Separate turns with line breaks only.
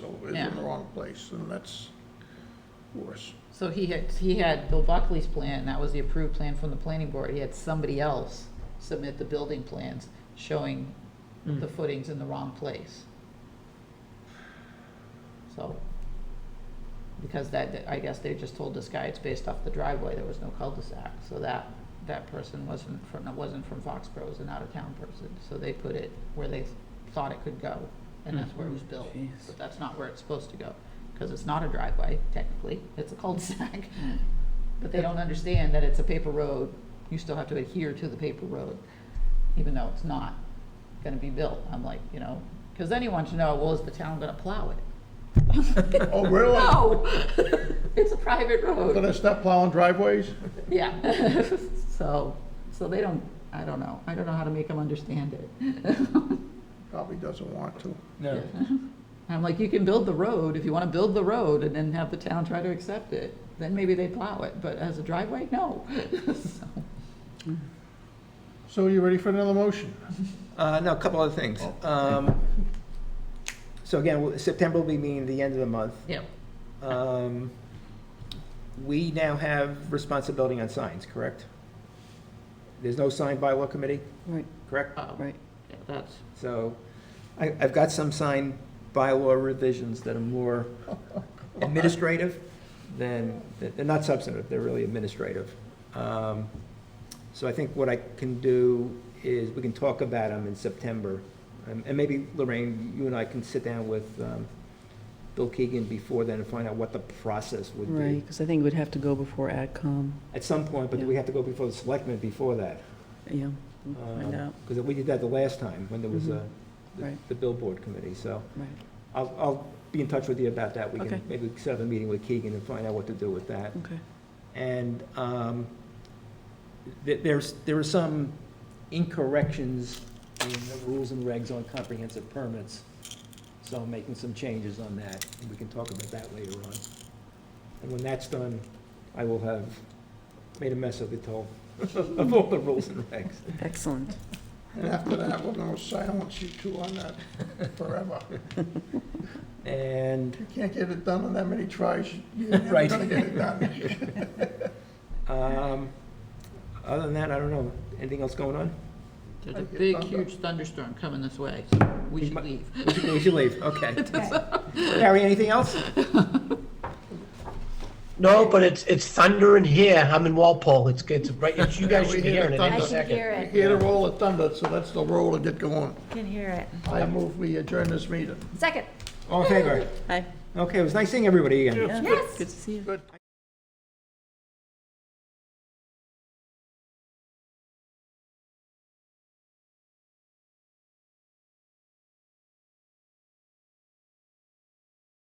someplace, and that's worse.
So he had, he had Bill Buckley's plan, that was the approved plan from the planning board, he had somebody else submit the building plans showing the footings in the wrong place. So, because that, that- I guess they just told this guy it's based off the driveway, there was no cul-de-sac, so that, that person wasn't from, wasn't from Foxborough, was an out-of-town person, so they put it where they thought it could go, and that's where it was built,
Jeez.
but that's not where it's supposed to go, because it's not a driveway technically, it's a cul-de-sac. But they don't understand that it's a paper road, you still have to adhere to the paper road, even though it's not gonna be built, I'm like, you know, because then you want to know, well, is the town gonna plow it?
Oh, really?
No, it's a private
But
road.
it's not plowing driveways?
Yeah, so, so they don't, I don't know, I don't know how to make them understand it.
Probably doesn't want to.
No.
I'm like, you can build the road, if you want to build the road and then have the town try to accept it, then maybe they plow it, but as a driveway, no. So,
So you ready for another motion?
Uh, no, a couple other things. Um, so again, w- September will be meaning the end of the month.
Yeah,
Um, we now have responsibility on signs, correct? There's no sign bylaw committee,
Right,
correct?
uh,
right.
yeah, that's,
So I, I've got some sign bylaw revisions that are more administrative than, that- they're not substantive, they're really administrative. Um, So I think what I can do is, we can talk about them in September. Um, And and maybe Lorraine, you and I can sit down with um, Bill Keegan before then and find out what the process would
Right,
be.
because I think it would have to go before AdCom,
At some point, but we have to go before the selectmen before that.
yeah. we'll
Uh,
Find out,
Because we did that the last time, when there was uh, the-
Mm-hmm. Right.
the billboard committee, so.
right.
I'll, I'll be in touch with you about that. We
Okay.
can maybe set up a meeting with Keegan and find out what to do with that.
Okay,
And um, th- there's, there are some incorrections in the rules and regs on comprehensive permits, so I'm making some changes on that, and we can talk about that later on. And when that's done, I will have made a mess of it all, of all the rules and regs.
excellent.
And after that, we're gonna silence you two on that forever.
And
You can't get it done in that many tries, you're never
Right.
gonna get it done.
um, other than that, I don't know, anything else going on?
there's a
Like your
big,
thunder.
huge thunderstorm coming this way, so we should leave.
We should- We should leave, okay. Harry, anything else?
No, but it's, it's thundering here. I'm in Walpole. It's, it's right, it's, you guys
We
should be
hear the
hearing it any
thunder. I
second.
You hear the roll of thunder, so that's the roll to get going.
Can hear it.
I move we adjourn this meeting.
Second.
All in favor?
Hi.
Okay, it was nice seeing everybody again.
Yeah,
Yes.
Good to see you.
Good.